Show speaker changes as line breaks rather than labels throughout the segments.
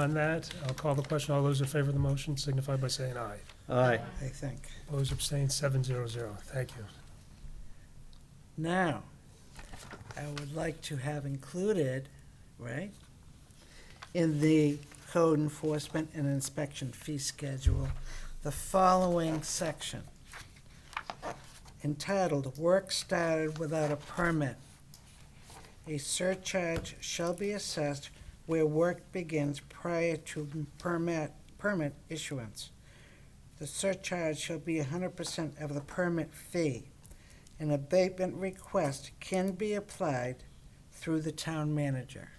On that, I'll call the question. All those in favor of the motion signify by saying aye.
Aye.
I think.
Opposed, abstained, seven zero zero. Thank you.
Now, I would like to have included, right, in the code enforcement and inspection fee schedule, the following section entitled Work Started Without a Permit. A surcharge shall be assessed where work begins prior to permit, permit issuance. The surcharge shall be hundred percent of the permit fee. An abatement request can be applied through the town manager.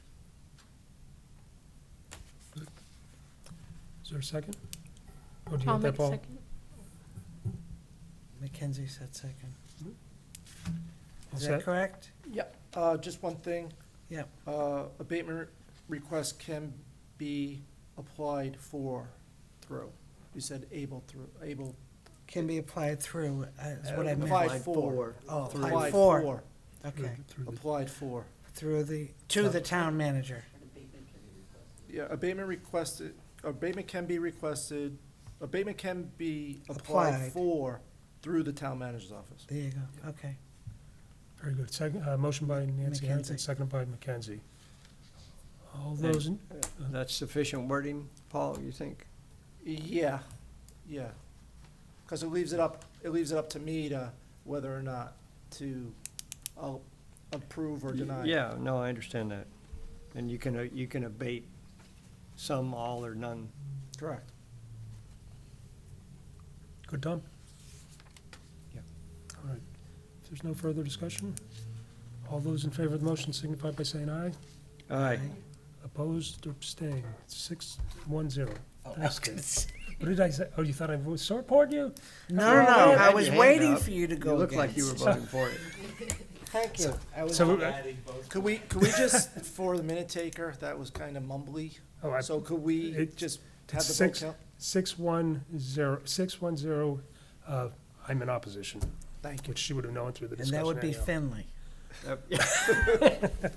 Is there a second? Or do you
I'll
want that,
make a
Paul?
second.
Mackenzie said second.
All
Is
set?
that correct?
Uh, just one thing.
Yep.
Uh, abatement request can be applied for through. You said able through, able.
Can be applied through, uh, is what I meant.
Applied for.
Oh, applied
Applied
for,
for,
Through-
okay,
through the-
applied for.
through the, to the town manager.
Yeah, abatement requested, abatement can be requested, abatement can be
Applied.
applied for through the town manager's office.
There you go, okay.
Very good. Second, uh, motion by Nancy Harrington,
McKenzie.
seconded by McKenzie. All those, in-
That's sufficient wording, Paul, you think?
Yeah, yeah. Because it leaves it up, it leaves it up to me to whether or not to uh, approve or deny.
Yeah, no, I understand that. And you can, uh, you can abate some, all, or none.
Correct.
good, Tom?
Yep.
All right. If there's no further discussion, all those in favor of the motion signify by saying aye.
Aye.
Opposed, abstained, six, one, zero.
Oh, I
Thanks,
was
Kate.
gonna say-
What did I say? Oh, you thought I was sore poured you?
No, no,
Well,
no,
you
I
had
was
your hand
waiting
up.
for you to
You
go
look like
against.
you were voting for it.
Thank you. I was-
So,
uh,
uh,
Could we, could we just, for the minute taker, that was kind of mumbly,
oh, I,
so could we
it-
just have the vote
six-
count?
six, one, zero, six, one, zero, uh, I'm in opposition,
Thank you.
which she would have known through the
And
discussion
that would be
anyhow.
Finley.
Yep.
All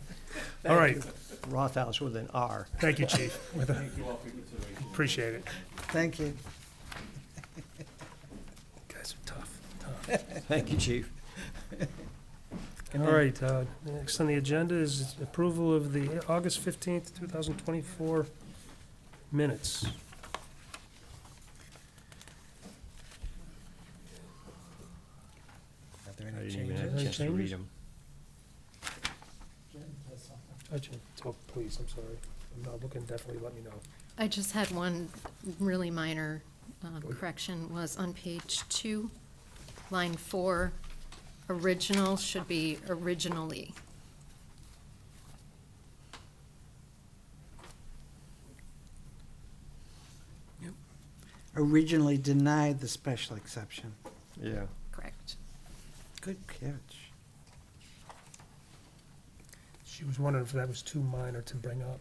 Thank
right,
you.
Rothaus with an R.
thank you, chief. With a- Appreciate it.
Thank you.
Guys are tough, tough.
Thank you, chief.
All right, uh, next on the agenda is approval of the August fifteenth, two thousand twenty-four minutes.
Are there
I
any
didn't even have a
changes?
Any
chance to
changes?
read them.
Actually, oh, please, I'm sorry. I'm not looking, definitely let me know.
I just had one really minor um, correction, was on page two, line four, original should be originally.
Originally denied the special exception.
Yeah.
Correct.
Good catch.
She was wondering if that was too minor to bring up.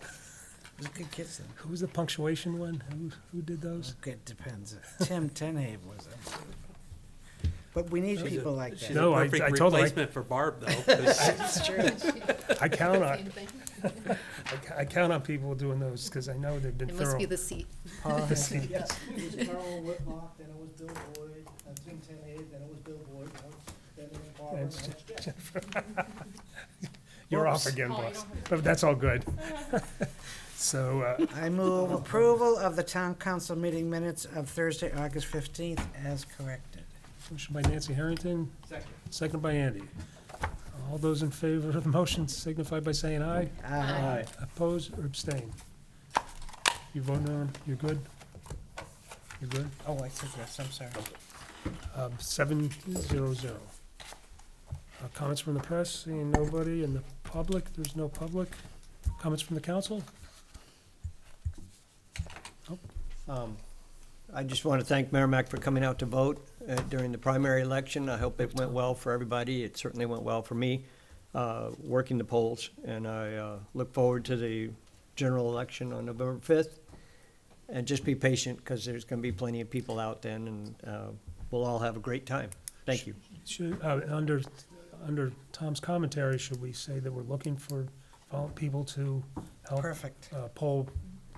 It was a good catch, though.
Who was the punctuation one? Who, who did those?
Okay, it depends. Tim Tenhaven was it. But we need
She's a-
people like
She's
that.
a
No, I- I
perfect
told her I-
replacement for Barb, though. 'cause
I count on,
Same thing.
I ca- I count on people doing those, because I know they've been
It
thorough. Oh,
must be the seat.
Paul has a-
Yes, it was Carl Whitlock, then it was Bill Boyd, then Tim Tenay, then it was Bill Boyd, then it was- then it was Barbara,
Thanks,
then it was Jeff.
You're off again,
Oh, you
boss.
don't have-
But that's all good. So, uh,
I move approval of the town council meeting minutes of Thursday, August fifteenth, as corrected.
motion by Nancy Harrington. Second. Second by Andy. All those in favor of the motion signify by saying aye.
Uh,
Aye.
Oppose or abstain? You voting on, you're good? You're good?
Oh, I said yes, I'm sorry.
Um, seven zero zero. Uh, Comments from the press, seeing nobody in the public, there's no public. Comments from the council?
Um, I just want to thank Merrimack for coming out to vote uh, during the primary election. I hope it went well for everybody. It certainly went well for me, uh, working the polls. And I uh, look forward to the general election on November 5th. And just be patient, because there's going to be plenty of people out then, and uh, we'll all have a great time. Thank you.
Should, uh, under, under Tom's commentary, should we say that we're looking for vol- people to help
Perfect.
uh, poll